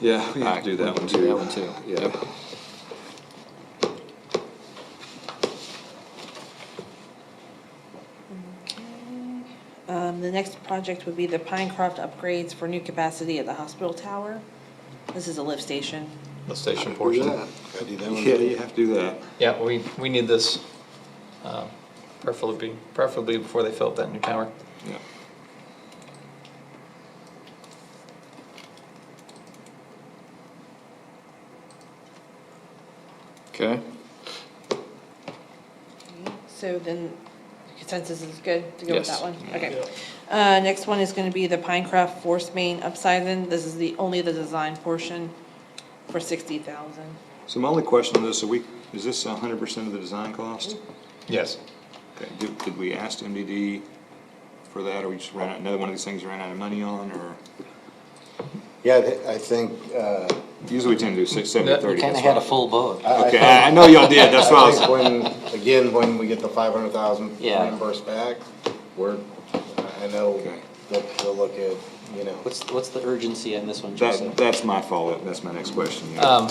Yeah, we have to do that Alright, one we'll too. do that one too. Yeah. Yep. Um, the next project would be the Pinecroft upgrades for new capacity at the hospital tower. This is a lift station. The station Do portion. that. Gotta do that one. Yeah, you have to do that. Yeah, we, we need this, uh, preferably, preferably before they fill up that new tower. Yeah. Okay, So then consensus is good to go with Yes. that one? Okay. Uh, next one is gonna be the Pinecroft force main upsizing. This is the, only the design portion for sixty thousand. So my only question on this, are we, is this hundred percent of the design cost? Yes. Okay, did, did we ask MDD for that, or we just ran out, another one of these things we ran out of money on, or? yeah, I thi- I think, uh, Usually we tend to do six, seven, We thirty. kinda that's had a why. full boat. I- I Okay, think- I I know y'all did, that's why I I was, think when, again, when we get the five hundred thousand Yeah. reimbursed back, we're, I know, Okay. they'll, they'll look at, you know. What's, what's the urgency on this one, that, Joseph? that's my fault, that's my next question. yeah. Um,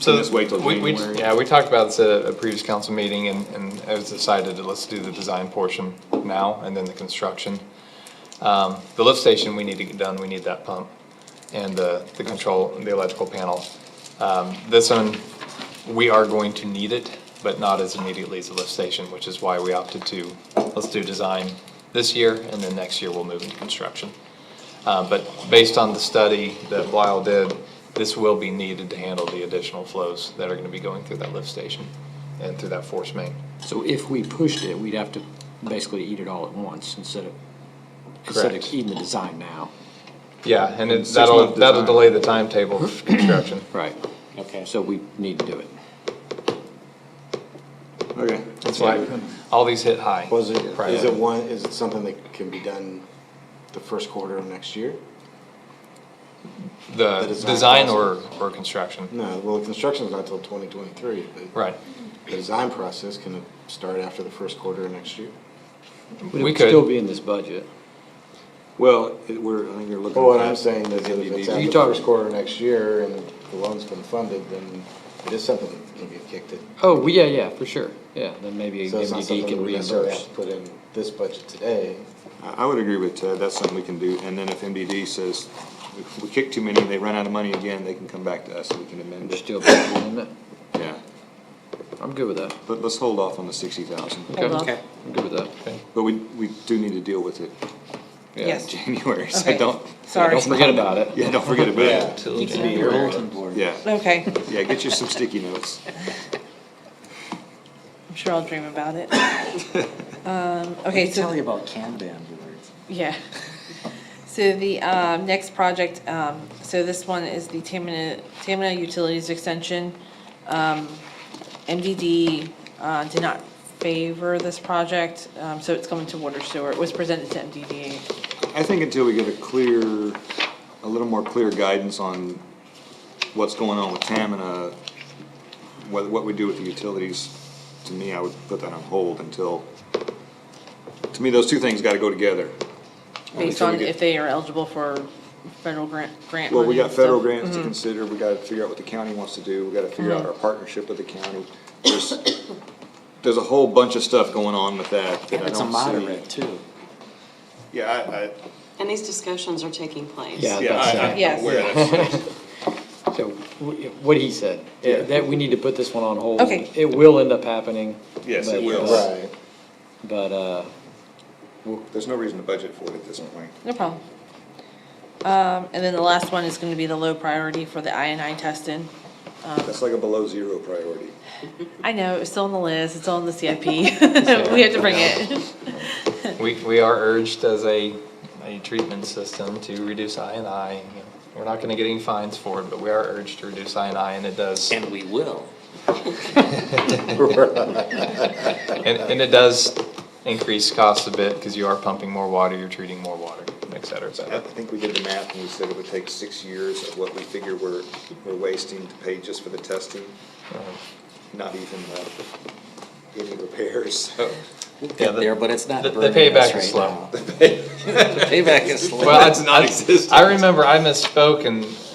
So. Just wait till we- we- January. Yeah, we talked about this at a previous council meeting and, and it was decided that let's do the design portion now and then the construction. Um, the lift station, we need to get done, we need that pump and the, the control, the electrical panel. Um, this one, we are going to need it, but not as immediately as the lift station, which is why we opted to, let's do design this year and then next year we'll move into construction. Uh, but based on the study that Lyle did, this will be needed to handle the additional flows that are gonna be going through that lift station and through that force main. So if we pushed it, we'd have to basically eat it all at once instead of, instead of Correct. eating the design now. Yeah, and it, that'll, Six-month that'll design. delay the timetable of construction. Right. Okay. So we need to do it. Okay, That's why all these hit high. Was it, is prior. it one, is it something that can be done the first quarter of next year? The the design design or, or construction, No, well, construction's not till twenty twenty-three, but. right. The design process can start after the first quarter of next year. But it We would still could, be in this budget. well, it- we're, I think you're looking. But what at I'm saying is that if it's MDD. after You the talking- first quarter of next year and the loan's been funded, then it is something that can get kicked in. Oh, yeah, yeah, for sure. Yeah, then maybe So it's not MDD something that can we necessarily have reimburse. to put in this budget today. I, I would agree with Ted, that's something we can do, and then if MDD says, if we kick too many, and they run out of money again, they can come back to us and we can amend We're it. still budgeting on it. Yeah, I'm good with that. but let's hold off on the sixty thousand, Hold on. Okay. I'm good with that. but we, we do need to deal with it. yeah, in Yes. January, so Okay. don't, Sorry. Don't forget about it. yeah, don't forget about it, Till Your bulletin board. yeah, Okay, yeah, get you some sticky notes. I'm sure I'll dream about it. Um, okay, so. Tell you about Kanban boards. Yeah. So the um, next project, um, so this one is the Tamina, Tamina Utilities Extension. Um, MDD uh, did not favor this project, um, so it's coming to water sewer. It was presented to MDD. I think until we get a clear, a little more clear guidance on what's going on with Tamina, what, what we do with the utilities, to me, I would put that on hold until, to me, those two things gotta go together. based until we on get- if they are eligible for federal grant, grant Well, we money got and federal stuff. grants to consider, we gotta figure out what the county wants to do, we gotta figure out our partnership with the county. There's, there's a whole bunch of stuff going on with that that I It's a don't see. moderate too. Yeah, I, I, And these discussions are taking place. Yeah, yeah, that's, uh, I, I'm Yes. aware of that. so, wh- what he said, Yeah. eh, that we need to put this one on hold. Okay. It will end up happening. Yes, it but, will. uh, Right. But, uh, There's no reason to budget for it at this point. No problem. Um, And then the last one is going to be the low priority for the INI testing. That's like a below zero priority. I know, it's still on the list, it's on the CIP. We have to bring it. we, we are urged as a, a treatment system to reduce I and I. We're not gonna get any fines for it, but we are urged to reduce I and I and it does. And we will. And, and it does increase costs a bit, cause you are pumping more water, you're treating more water, et cetera, et I cetera. think we did the math and we said it would take six years of what we figure we're, we're wasting to pay just for the testing, not even uh, any repairs, so. We'll Yeah, get the- there, but it's not the- the burning us payback is right slow. now. The Payback is slow. Well, it's not I remember I misspoke and uh,